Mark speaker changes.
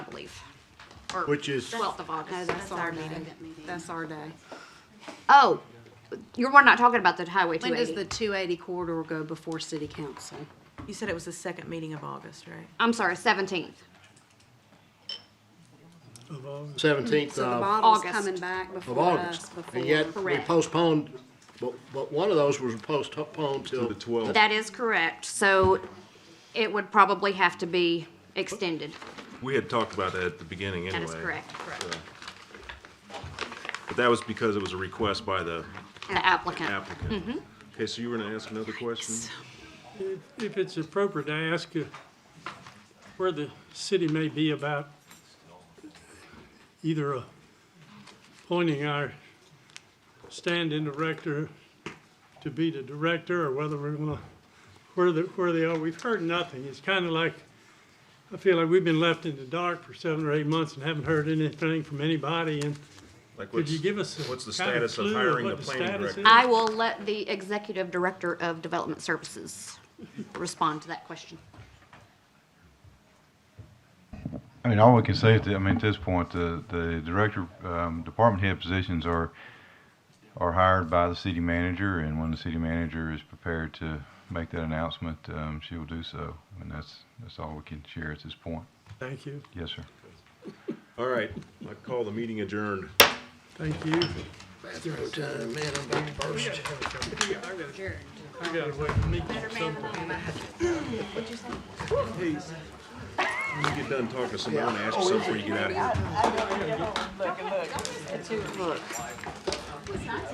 Speaker 1: or
Speaker 2: Which is-
Speaker 1: twelfth of
Speaker 3: No,
Speaker 1: August.
Speaker 3: Oh, that's our day.
Speaker 1: meeting.
Speaker 3: That's our day.
Speaker 1: Oh, you're, we're not talking about the highway two
Speaker 3: When does the
Speaker 1: eighty.
Speaker 3: two eighty corridor go before city council?
Speaker 4: You said it was the second meeting of August, right?
Speaker 1: I'm sorry, seventeenth.
Speaker 2: Seventeenth
Speaker 3: So the
Speaker 2: of
Speaker 3: bottle's
Speaker 1: August.
Speaker 3: coming back
Speaker 2: of
Speaker 3: before us,
Speaker 2: August.
Speaker 3: before.
Speaker 2: And yet, we
Speaker 1: Correct.
Speaker 2: postponed, but, but one of those was postponed
Speaker 5: to
Speaker 2: till
Speaker 5: the 12th.
Speaker 1: That is correct, so it would probably have to be extended.
Speaker 5: We had talked about that at the beginning anyway.
Speaker 1: That is correct.
Speaker 5: But that was because it was a request by the
Speaker 1: The applicant.
Speaker 5: applicant. Okay, so you were gonna ask another question?
Speaker 6: If it's appropriate, I ask you where the city may be about either appointing our stand-in director to be the director, or whether we're gonna, where the, where they are. We've heard nothing. It's kinda like, I feel like we've been left in the dark for seven or eight months and haven't heard anything from anybody, and
Speaker 5: Like
Speaker 6: could
Speaker 5: what's-
Speaker 6: you give us a
Speaker 5: What's the
Speaker 6: kind
Speaker 5: status of
Speaker 6: clue
Speaker 5: hiring the
Speaker 6: what
Speaker 5: planning
Speaker 6: status
Speaker 5: director?
Speaker 6: is?
Speaker 1: I will let the executive director of development services respond to that question.
Speaker 7: I mean, all we can say is that, I mean, at this point, the, the director, um, department head positions are, are hired by the city manager, and when the city manager is prepared to make that announcement, um, she will do so. And that's, that's all we can share at this point.
Speaker 6: Thank you,
Speaker 7: Yes, sir.
Speaker 5: All right, I call the meeting adjourned.
Speaker 6: thank you.
Speaker 2: bathroom time, man, I'm about to burst.
Speaker 6: I gotta wait for me.
Speaker 5: Hey, when you get done talking to somebody, I'm gonna ask
Speaker 6: Oh,
Speaker 5: you something before you get out of here.